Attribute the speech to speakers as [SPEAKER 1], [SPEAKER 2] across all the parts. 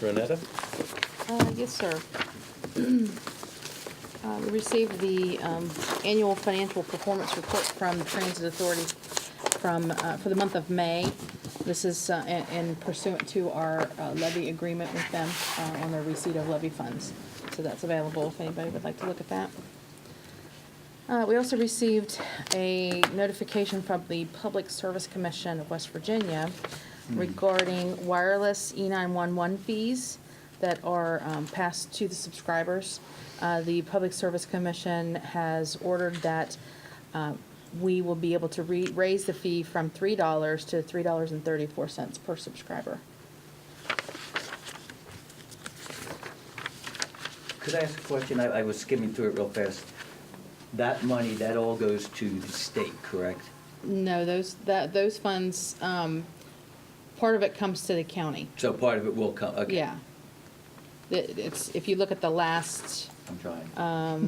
[SPEAKER 1] Renetta?
[SPEAKER 2] Uh, Yes, sir. Uh, We received the um, annual financial performance report from the Transit Authority from, uh, for the month of May. This is uh, in in pursuant to our uh, levy agreement with them uh, on their receipt of levy funds. So that's available if anybody would like to look at that. Uh, We also received a notification from the Public Service Commission of West Virginia regarding wireless E E911 fees that are um, passed to the subscribers. Uh, The Public Service Commission has ordered that uh, we will be able to re- raise the fee from $3 to $3.34 per subscriber.
[SPEAKER 3] Could I ask a question? I, I was skimming through it real fast. That money, that all goes to the state, correct?
[SPEAKER 2] No, those, that, those funds, um, part of it comes to the county.
[SPEAKER 3] So part of it will come, okay.
[SPEAKER 2] Yeah. It- It's, if you look at the last, um,
[SPEAKER 3] I'm trying.
[SPEAKER 2] Uh,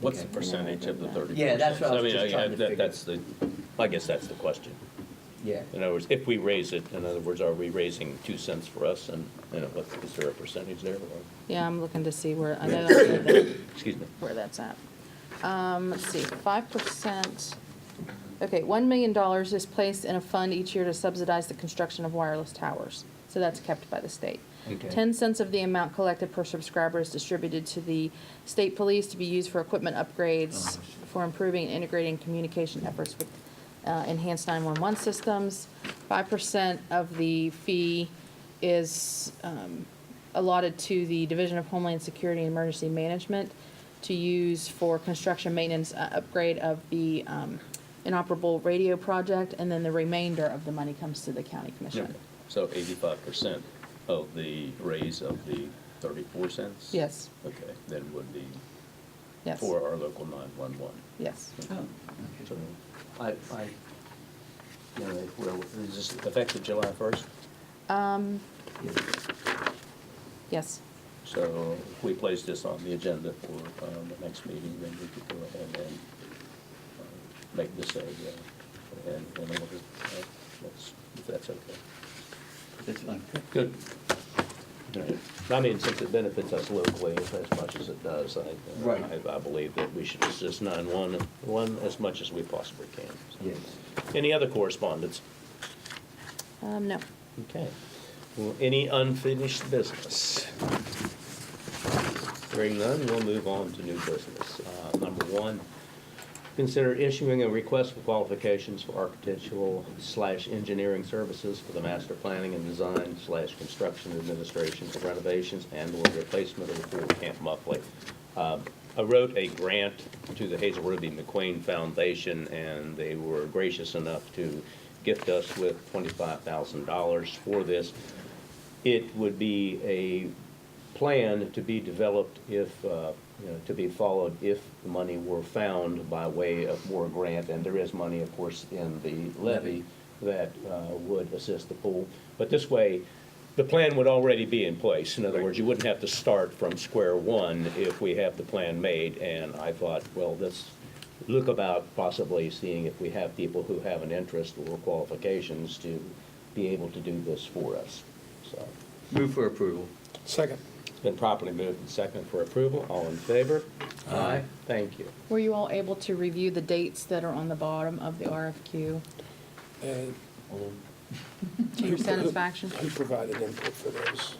[SPEAKER 4] What's the
[SPEAKER 3] Okay.
[SPEAKER 4] percentage of the thirty percent?
[SPEAKER 3] Yeah, that's what I was just trying to figure.
[SPEAKER 4] That's the, I guess that's the question.
[SPEAKER 3] Yeah.
[SPEAKER 4] In other words, if we raise it, in other words, are we raising two cents for us and, you know, what, is there a percentage there or,
[SPEAKER 2] yeah, I'm looking to see where, I know that-
[SPEAKER 4] excuse me?
[SPEAKER 2] where that's at. Um, let's see, five percent, okay, one million dollars is placed in a fund each year to subsidize the construction of wireless towers. So that's kept by the state.
[SPEAKER 3] Okay.
[SPEAKER 2] Ten cents of the amount collected per subscriber is distributed to the state police to be used for equipment upgrades,
[SPEAKER 3] Uh-huh.
[SPEAKER 2] for improving and integrating communication efforts with uh, enhanced 911 systems. 5% of the fee is um, allotted to the Division of Homeland Security and Emergency Management to use for construction, maintenance, uh, upgrade of the um, inoperable radio project, and then the remainder of the money comes to the county commission.
[SPEAKER 4] So eighty-five percent of the raise of the thirty-four cents?
[SPEAKER 2] Yes,
[SPEAKER 4] Okay, then would be
[SPEAKER 2] yes,
[SPEAKER 4] for our local nine-one-one.
[SPEAKER 2] yes.
[SPEAKER 3] Oh,
[SPEAKER 4] So,
[SPEAKER 3] okay. I, I,
[SPEAKER 4] you know, if we're- is this effective July first?
[SPEAKER 2] Um,
[SPEAKER 3] yeah.
[SPEAKER 2] Yes,
[SPEAKER 4] So if we place this on the agenda for um, the next meeting, then we could go ahead and uh, make this a, uh, an an order, uh, that's- if that's okay.
[SPEAKER 3] that's fine.
[SPEAKER 4] Good. I mean, since it benefits us locally as as much as it does, I, uh,
[SPEAKER 3] Right.
[SPEAKER 4] I- I believe that we should assist 911 as much as we possibly can. So,
[SPEAKER 3] Yes.
[SPEAKER 4] Any other correspondence?
[SPEAKER 2] Um, no.
[SPEAKER 4] Okay. Well, any unfinished business? Hearing none, we'll move on to new business. Uh, Number one, consider issuing a request for qualifications for architectural slash engineering services for the master planning and design slash construction administration for renovations and or replacement of the old Camp Muffley. Um, I wrote a grant to the Hazel Ruby McQueen Foundation, and they were gracious enough to gift us with $25,000 for this. It would be a plan to be developed if, uh, you know, to be followed if the money were found by way of more grant, and there is money, of course, in the levy that uh, would assist the pool. But this way, the plan would already be in place. In other words, you wouldn't have to start from square one if we have the plan made. And I thought, well, let's look about possibly seeing if we have people who have an interest or qualifications to be able to do this for us. So
[SPEAKER 3] Move for approval.
[SPEAKER 5] Second.
[SPEAKER 4] it's been properly moved and seconded for approval. All in favor?
[SPEAKER 3] Aye.
[SPEAKER 4] Thank you.
[SPEAKER 2] Were you all able to review the dates that are on the bottom of the RFQ
[SPEAKER 5] Uh,
[SPEAKER 3] All
[SPEAKER 2] to your satisfaction?
[SPEAKER 5] Who provided input for those?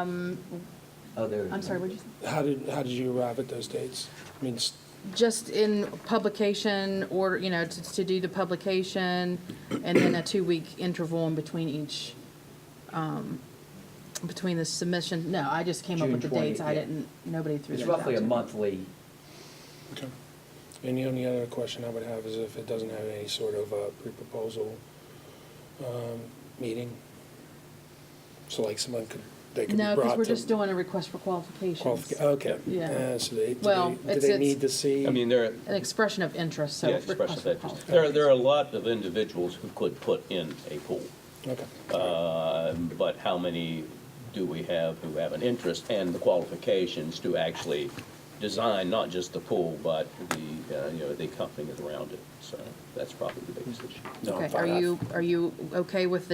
[SPEAKER 3] Other.
[SPEAKER 2] I'm sorry, what'd you say?
[SPEAKER 5] How did, how did you arrive at those dates? I mean, s-
[SPEAKER 2] Just in publication order, you know, to, to do the publication and then a two-week interval in between each, um, between the submission. No, I just came up with the
[SPEAKER 3] June 20,
[SPEAKER 2] dates. I
[SPEAKER 3] yeah.
[SPEAKER 2] didn't, nobody threw
[SPEAKER 3] It's
[SPEAKER 2] those out
[SPEAKER 3] roughly a
[SPEAKER 2] to me.
[SPEAKER 3] monthly,
[SPEAKER 5] okay. and the only other question I would have is if it doesn't have any sort of uh, pre-proposal um, meeting? So like someone could, they could be
[SPEAKER 2] No,
[SPEAKER 5] brought to.
[SPEAKER 2] because we're just doing a request for qualifications,
[SPEAKER 5] qualifica- Okay.
[SPEAKER 2] Yeah.
[SPEAKER 5] Uh, So they, do
[SPEAKER 2] Well,
[SPEAKER 5] they- do
[SPEAKER 2] it's-
[SPEAKER 5] they
[SPEAKER 2] it's-
[SPEAKER 5] need to see?
[SPEAKER 4] I mean, there,
[SPEAKER 2] an expression of interest, so.
[SPEAKER 4] yeah, expression
[SPEAKER 2] request
[SPEAKER 4] of
[SPEAKER 2] for
[SPEAKER 4] interest. There, are- there are a
[SPEAKER 2] qualifications.
[SPEAKER 4] lot of individuals who could put in a pool.
[SPEAKER 5] Okay.
[SPEAKER 4] Um, But how many do we have who have an interest and the qualifications to actually design not just the pool, but the, uh, you know, the company around it? So that's probably the biggest issue.
[SPEAKER 5] No,
[SPEAKER 2] Okay,
[SPEAKER 5] fine,
[SPEAKER 2] are
[SPEAKER 5] I've-
[SPEAKER 2] you, are you okay with